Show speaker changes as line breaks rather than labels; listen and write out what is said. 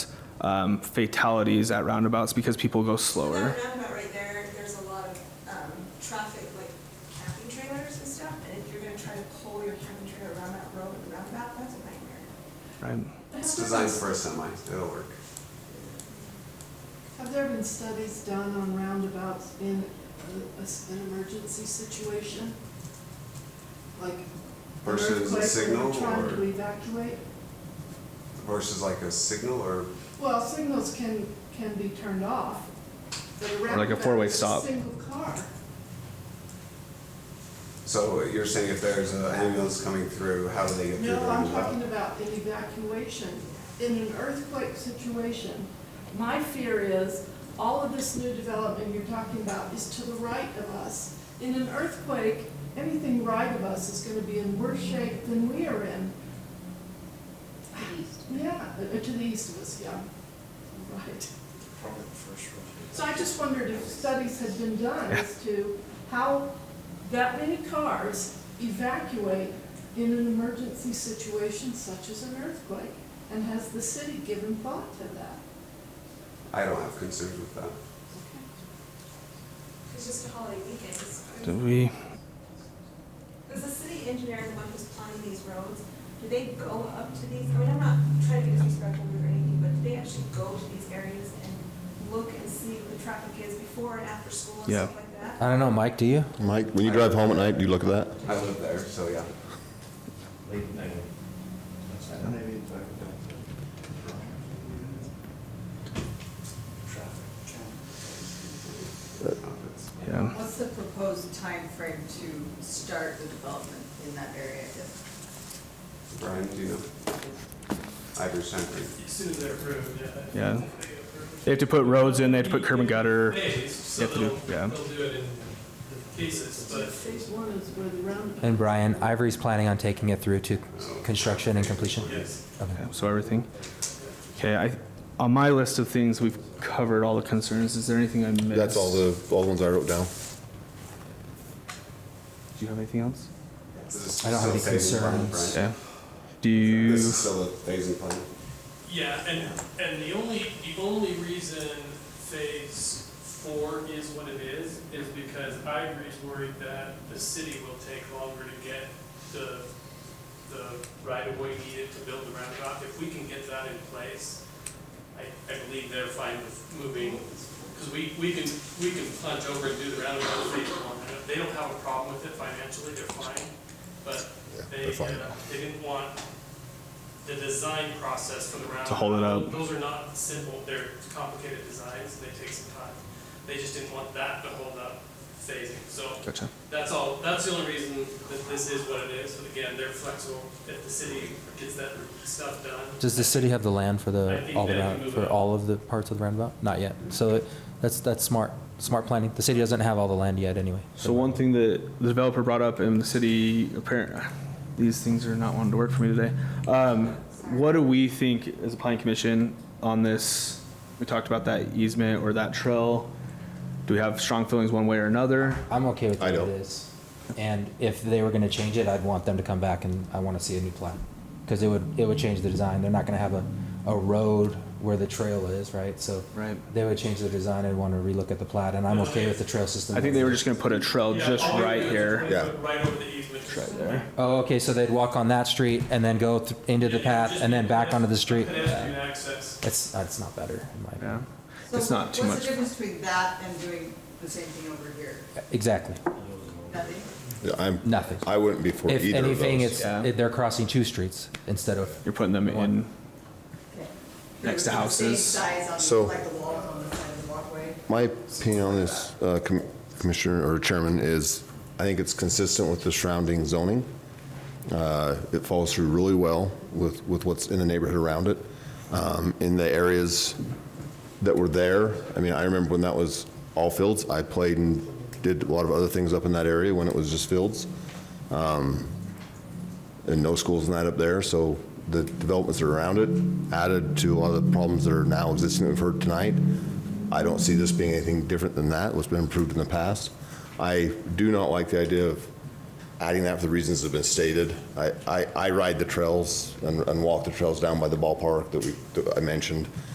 um, fatalities at roundabouts because people go slower.
That roundabout right there, there's a lot of, um, traffic, like camping trailers and stuff, and if you're gonna try to pull your camping trailer around that road and roundabout, that's a nightmare.
Right?
It's designed for a semi, it'll work.
Have there been studies done on roundabouts in a- a s- an emergency situation? Like an
Versus a
earthquake when
signal
we're Trying
or-
to evacuate?
Versus like a signal or,
Well, signals can, can be turned off. but
Or like a
roundabout
four-way
is a
stop.
Single car.
so you're saying if there's an ambulance coming through, how do they get through the
No, I'm talking
roundabout?
about an evacuation. In an earthquake situation, my fear is, all of this new development you're talking about is to the right of us. In an earthquake, anything right of us is gonna be in worse shape than we are in. Yeah, uh, to the east of us, yeah, right.
Probably the first row.
So I just wondered if studies had been done as to how that many cars evacuate in an emergency situation such as an earthquake? And has the city given thought to that?
I don't have concerns with that.
It's just a holiday weekend, it's-
Do we?
Is the city engineer the one who's planning these roads? Do they go up to these, I mean, I'm not trying to be disrespectful or anything, but do they actually go to these areas and look and see what the traffic is before and after school and
Yeah.
stuff like that?
I don't know, Mike, do you?
Mike, when you drive home at night, do you look at that?
I live there, so yeah.
Late night. Maybe if I could go to- Traffic.
Yeah.
What's the proposed time frame to start the development in that area? If-
Brian, do you know? I have your sign for you.
As soon as they're approved, yeah.
Yeah.
If they approve.
They have to put roads in. They have to put curb and gutter.
Phase,
You
so
have to do-
they'll,
yeah.
they'll do it in different cases, but
Phase one is where the roundabout.
And Brian, Ivory's planning on taking it through to construction and completion?
yes.
Okay.
Okay, so everything. Okay, I on my list of things we've covered all the concerns. Is there anything I missed?
That's all the, all the ones I wrote down.
Do you have anything else?
This is
I don't have
still
any
phasing plan,
concerns.
Brian.
Yeah. Do you?
This is still a phasing plan.
Yeah, and, and the only, the only reason phase four is what it is, is because I agree is worried that the city will take longer to get the, the right of way needed to build the roundabout. If we can get that in place, I, I believe they're fine with moving, because we, we can, we can plunge over and do the roundabout phase one. They don't have a problem with it financially, they're fine, but
Yeah,
they,
they're fine.
uh, they didn't want the design process for the roundabout.
To hold it up.
Those are not simple, they're complicated designs, and they take some time. They just didn't want that to hold up phasing, so
Gotcha.
that's all, that's the only reason that this is what it is, but again, they're flexible. If the city gets that stuff done,
Does the city have the land for
I
the,
think
all the,
they
round-
move
for
it.
all of the parts of the roundabout? Not yet. So it- that's, that's smart, smart planning. The city doesn't have all the land yet anyway.
So one thing that the developer brought up and the city apparent, these things are not wanting to work for me today. Um, what do we think as a planning commission on this? We talked about that easement or that trail. Do we have strong feelings one way or another?
I'm okay with
I
what it
don't.
is. And if they were gonna change it, I'd want them to come back and I wanna see a new plan. Cause it would, it would change the design. They're not gonna have a, a road where the trail is, right? So
Right.
they would change the design and wanna relook at the plat and I'm okay with the trail system.
I think they were just gonna put a trail
Yeah,
just
all we
right
do is
here.
we
Yeah.
put Right over the easement.
Right there.
Oh, okay, so they'd walk on that street and then go th- into the path and then back onto the street.
Pedestrian access.
It's, that's not better, in my
Yeah.
opinion.
so
It's not too
What's
much.
the difference between that and doing the same thing over here?
Exactly,
Nothing?
Yeah, I'm,
nothing.
I wouldn't be for
If
either of
anything,
those.
it's,
Yeah.
it- they're crossing two streets instead of,
You're putting them in.
Okay.
Next to
The
houses.
Same size
So-
on, like the wall on the side of the walkway?
My opinion on this, uh, com- Commissioner or Chairman, is I think it's consistent with the surrounding zoning. Uh, It follows through really well with, with what's in the neighborhood around it. Um, In the areas that were there, I mean, I remember when that was all fields, I played and did a lot of other things up in that area when it was just fields. Um, And no schools and that up there, so the developments that are around it added to a lot of the problems that are now existing that we've heard tonight. I don't see this being anything different than that, what's been approved in the past. I do not like the idea of adding that for the reasons that have been stated. I, I, I ride the trails and, and walk the trails down by the ballpark that we, that I mentioned.